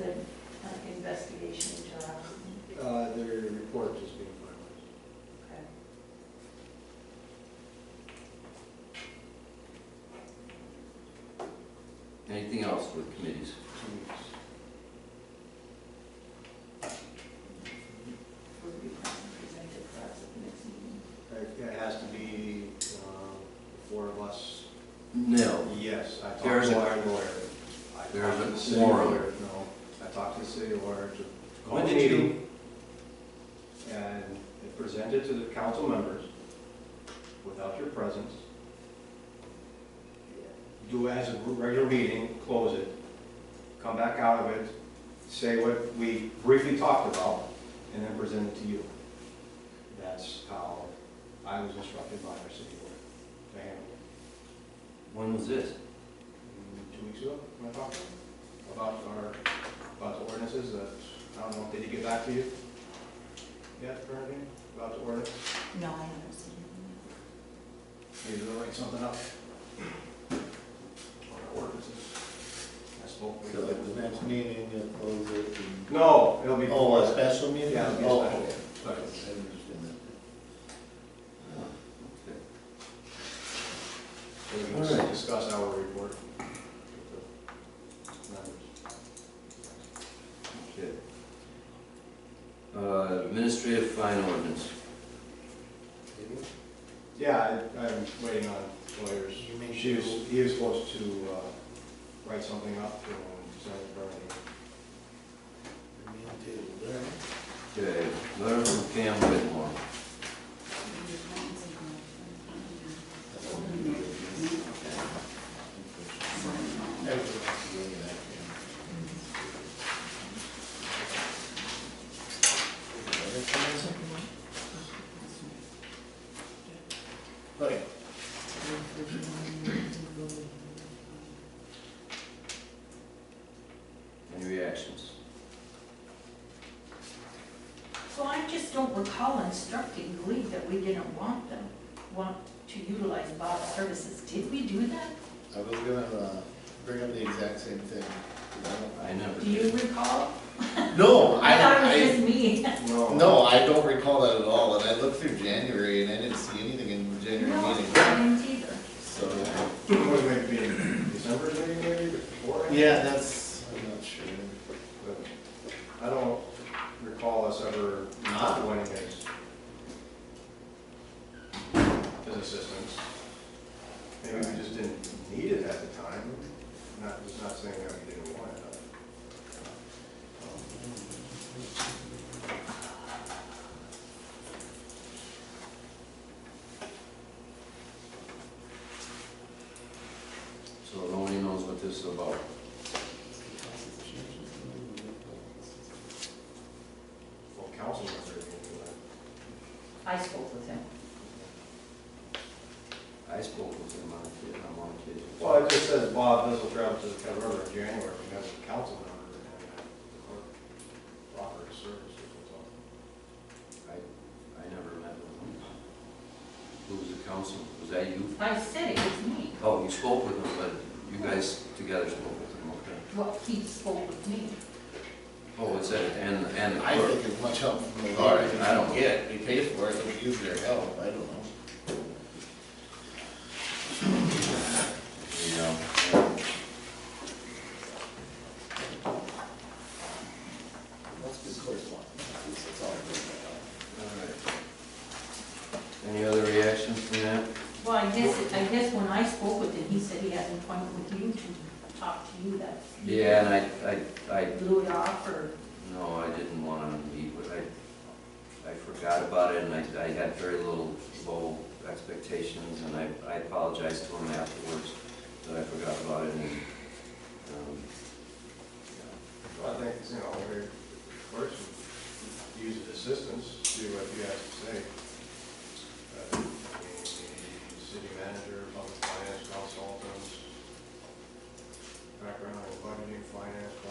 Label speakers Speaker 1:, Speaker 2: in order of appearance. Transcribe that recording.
Speaker 1: uh, investigation into our house?
Speaker 2: Uh, their report is being finalized.
Speaker 1: Okay.
Speaker 3: Anything else with committees?
Speaker 2: Two weeks.
Speaker 1: Will be presented for us at the next meeting.
Speaker 2: It Uh, it has to be, um, four of us.
Speaker 3: No.
Speaker 2: Yes, I talked to
Speaker 3: There is a-
Speaker 2: our lawyer. I
Speaker 3: there is
Speaker 2: talked to
Speaker 3: a
Speaker 2: the city
Speaker 3: quorum.
Speaker 2: lawyer, No, I talked to the city lawyer to.
Speaker 3: When did you-
Speaker 2: And it presented to the council members without your presence. Do it as a regular meeting, close it, come back out of it, say what we briefly talked about, and then present it to you. That's how I was instructed by our city lawyer to handle it.
Speaker 3: When was this?
Speaker 2: two weeks ago, when I talked to them about our, about the ordinances, that, I don't know, did he get back to you? Yet, or anything, about the ordinance,
Speaker 4: No, I haven't seen it.
Speaker 2: maybe they'll write something up. On our ordinances. I spoke with
Speaker 5: So at the next meeting, you'll close it and...
Speaker 2: No, it'll be.
Speaker 5: Oh, a special meeting?
Speaker 2: Yeah, it'll be
Speaker 5: Oh,
Speaker 2: a
Speaker 5: okay.
Speaker 2: special.
Speaker 5: I understand
Speaker 3: Oh,
Speaker 2: We're gonna discuss our report. Members.
Speaker 3: Okay. Uh, Administrative fine ordinance.
Speaker 5: that.
Speaker 2: Yeah, I, I'm waiting on lawyers.
Speaker 5: You may
Speaker 2: She was,
Speaker 5: shoot.
Speaker 2: he was supposed to, uh, write something up um, and send it to Bernie.
Speaker 5: Me too. There.
Speaker 3: Okay, letter from Pam Whitmore.
Speaker 5: Okay.
Speaker 3: Any reactions?
Speaker 1: So I just don't recall instructing Glee that we didn't want them, want to utilize Bob's services. Did we do that?
Speaker 5: I was gonna uh, bring up the exact same thing. 'cause I don't-
Speaker 3: I never
Speaker 1: Do you
Speaker 3: did.
Speaker 1: recall?
Speaker 5: No, I,
Speaker 1: thought it was
Speaker 5: I,
Speaker 1: just me.
Speaker 2: No.
Speaker 5: no, I don't recall that at all, and I looked through January and I didn't see anything in the January
Speaker 1: No,
Speaker 5: meeting,
Speaker 1: I didn't either.
Speaker 5: so.
Speaker 2: What would it be, December maybe, maybe, before?
Speaker 5: Yeah, that's, I'm not sure.
Speaker 2: But I don't recall us ever not winning his, his assistance. Maybe we just didn't need it at the time, not, just not saying that we didn't want it.
Speaker 3: So nobody knows what this is about.
Speaker 2: Well, council members didn't do that.
Speaker 1: I spoke with him.
Speaker 3: I spoke with him on it, I'm on occasion.
Speaker 2: Well, it just says Bob Bissell traveled to the Cut River in January because the council member didn't have that proper services, that's all.
Speaker 3: I, I never met with him. Who was the council? Was that you?
Speaker 1: I said it was me.
Speaker 3: Oh, you spoke with him, but you guys together spoke with him, okay.
Speaker 1: Well, he spoke with me.
Speaker 3: Oh, it's that, and, and the
Speaker 5: I
Speaker 3: clerk.
Speaker 5: think it's much help from the
Speaker 3: All
Speaker 5: lawyer.
Speaker 3: right, I don't-
Speaker 5: Yeah, we pay for it, we use their help, I don't know.
Speaker 3: Yeah.
Speaker 5: That's good correspondence, it's all good.
Speaker 3: All right. Any other reactions from that?
Speaker 1: Well, I guess, I guess when I spoke with him, he said he had an appointment with you to talk to you that.
Speaker 3: Yeah, and I, I, I,
Speaker 1: Blew it off or,
Speaker 3: no, I didn't want to meet, but I, I forgot about it, and I, I had very little, low expectations, and I, I apologized to him afterwards that I forgot about it, and, um,
Speaker 2: Well, I think, you know, every person uses assistance, do what you have to say. Uh, I mean, the City manager, public finance consultants, background in budgeting, finance,
Speaker 5: Mm-hmm.